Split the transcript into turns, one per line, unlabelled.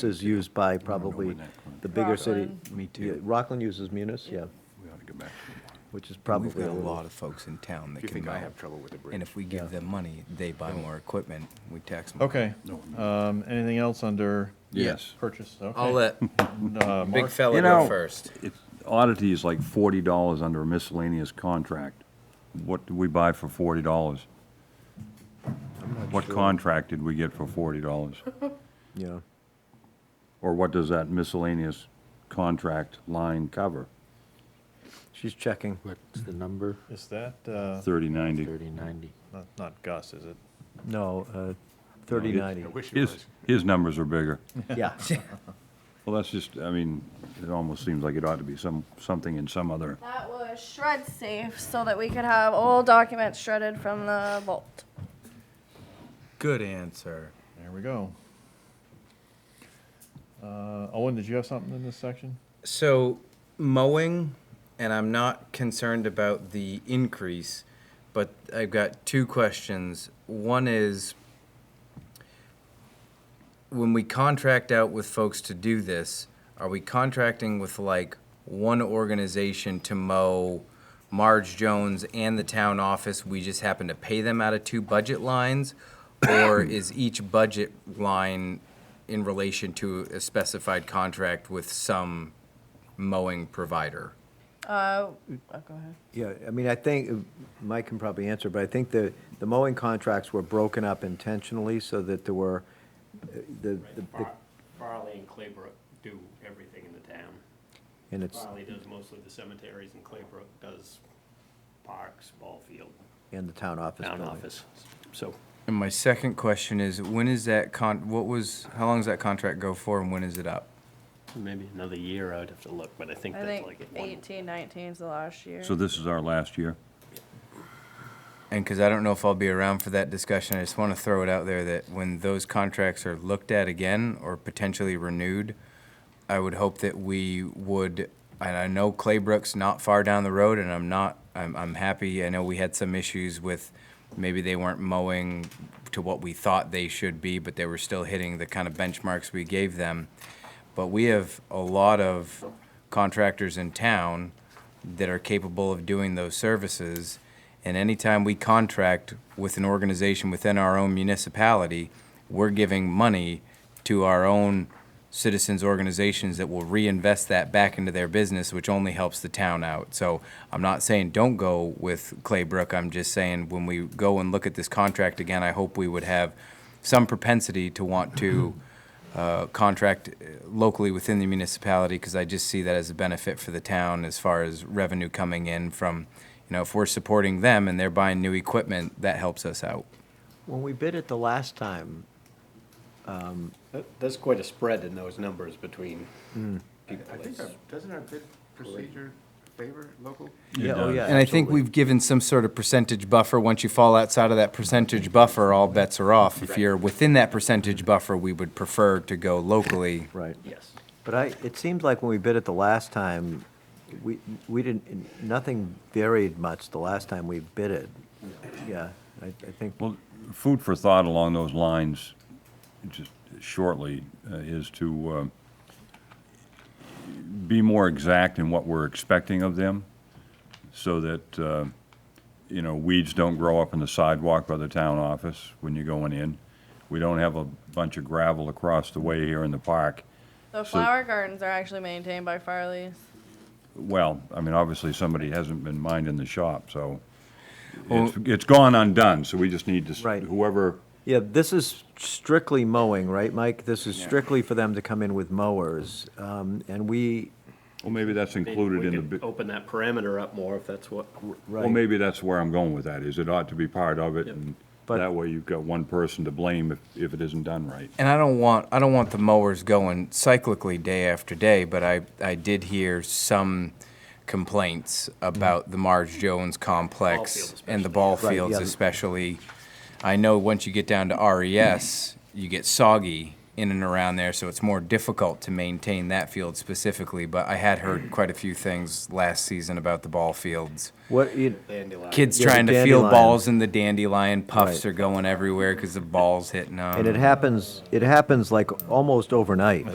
is used by probably
when that comes.
the bigger city.
Rockland.
Me too. Rockland uses Munis, yeah,
We ought to go back to the water.
which is
We've
probably
got
a
a lot
little.
of folks in town that
You
can
think I
go.
have trouble with the bridge?
And if we
Yeah.
give them money, they buy more equipment, we tax them.
Okay.
No, no.
Um, anything else under
Yes.
purchase? Okay.
I'll let
Uh,
big
Mark?
fella
You
go
know-
first.
It's- Oddity is like forty dollars under a miscellaneous contract. What did we buy for forty dollars? What contract did we get for forty dollars?
Yeah,
Or what does that miscellaneous contract line cover?
she's checking.
What's the number?
Is that, uh,
Thirty ninety.
Thirty ninety.
not, not Gus, is it?
No, uh, 3090,
wish His, his numbers are bigger.
yeah.
Well, that's just, I mean, it almost seems like it ought to be some, something in some other,
That was shred safe so that we could have all documents shredded from the vault.
Good answer.
There we go. Uh, Owen, did you have something in this section?
So mowing, and I'm not concerned about the increase, but I've got two questions. One is when we contract out with folks to do this, are we contracting with like one organization to mow Marge Jones and the town office? We just happen to pay them out of two budget lines? Or is each budget line in relation to a specified contract with some mowing provider?
Uh, oh, go ahead.
Yeah, I mean, I think, uh, Mike can probably answer, but I think the, the mowing contracts were broken up intentionally so that there were, uh, the, the-
Right, Far- Farley and Claybrook do everything in the town.
and it's,
Farley does mostly the cemeteries, and Claybrook does parks, ball field,
and the town office
town
building.
office. So
And my second question is, when is that con, what was, how long does that contract go for and when is it up?
maybe another year, I'd have to look, but I think
I
that's
think
like at one.
18, 19 is the last year.
so this is our last year?
And because I don't know if I'll be around for that discussion, I just want to throw it out there that when those contracts are looked at again or potentially renewed, I would hope that we would, and I know Claybrook's not far down the road, and I'm not, I'm, I'm happy. I know we had some issues with, maybe they weren't mowing to what we thought they should be, but they were still hitting the kind of benchmarks we gave them. But we have a lot of contractors in town that are capable of doing those services. And anytime we contract with an organization within our own municipality, we're giving money to our own citizens organizations that will reinvest that back into their business, which only helps the town out. So I'm not saying don't go with Claybrook. I'm just saying when we go and look at this contract again, I hope we would have some propensity to want to uh, contract uh, locally within the municipality, because I just see that as a benefit for the town as far as revenue coming in from, you know, if we're supporting them and they're buying new equipment, that helps us out.
When we bid it the last time,
That's quite a spread in those numbers between
Hmm.
people.
I think, our- doesn't our bid procedure favor local?
yeah, oh,
does.
yeah.
And I think
absolutely.
we've given some sort of percentage buffer. Once you fall outside of that percentage buffer, all bets are off. If you're within that percentage buffer, we would prefer to go locally.
Right.
Yes.
But I, it seemed like when we bid it the last time, we, we didn't, nothing varied much the last time we bid it. Yeah, I, I think,
Well, food for thought along those lines, just shortly, uh, is to um, be more exact in what we're expecting of them, so that, uh, you know, weeds don't grow up in the sidewalk by the town office when you're going in. We don't have a bunch of gravel across the way here in the park.
the
so-
flower gardens are actually maintained by Farley's.
Well, I mean, obviously, somebody hasn't been minding the shop, so it's it's gone undone, so we just need to,
Right.
s- whoever
yeah, this is strictly mowing, right, Mike? This is strictly for them to come in with mowers. Um, and we,
Well, maybe that's
Maybe
included
we
in the,
could
bid-
Open that parameter up more if that's what,
well,
right,
maybe that's where I'm going with that, is it ought to be part of it, and
But-
that way you've got one person to blame if, if it isn't done right.
And I don't want, I don't want the mowers going cyclically day after day, but I, I did hear some complaints about the Marge Jones complex
field
and the ball
especially. Right,
fields
yeah.
especially. I know once you get down to RES, you get soggy in and around there, so it's more difficult to maintain that field specifically, but I had heard quite a few things last season about the ball fields
what, you,
dandelion.
kids
Yeah, the
trying to field
dandelion.
balls and the dandelion
Right.
puffs are going everywhere because the ball's hitting them.
and it happens, it happens like almost overnight.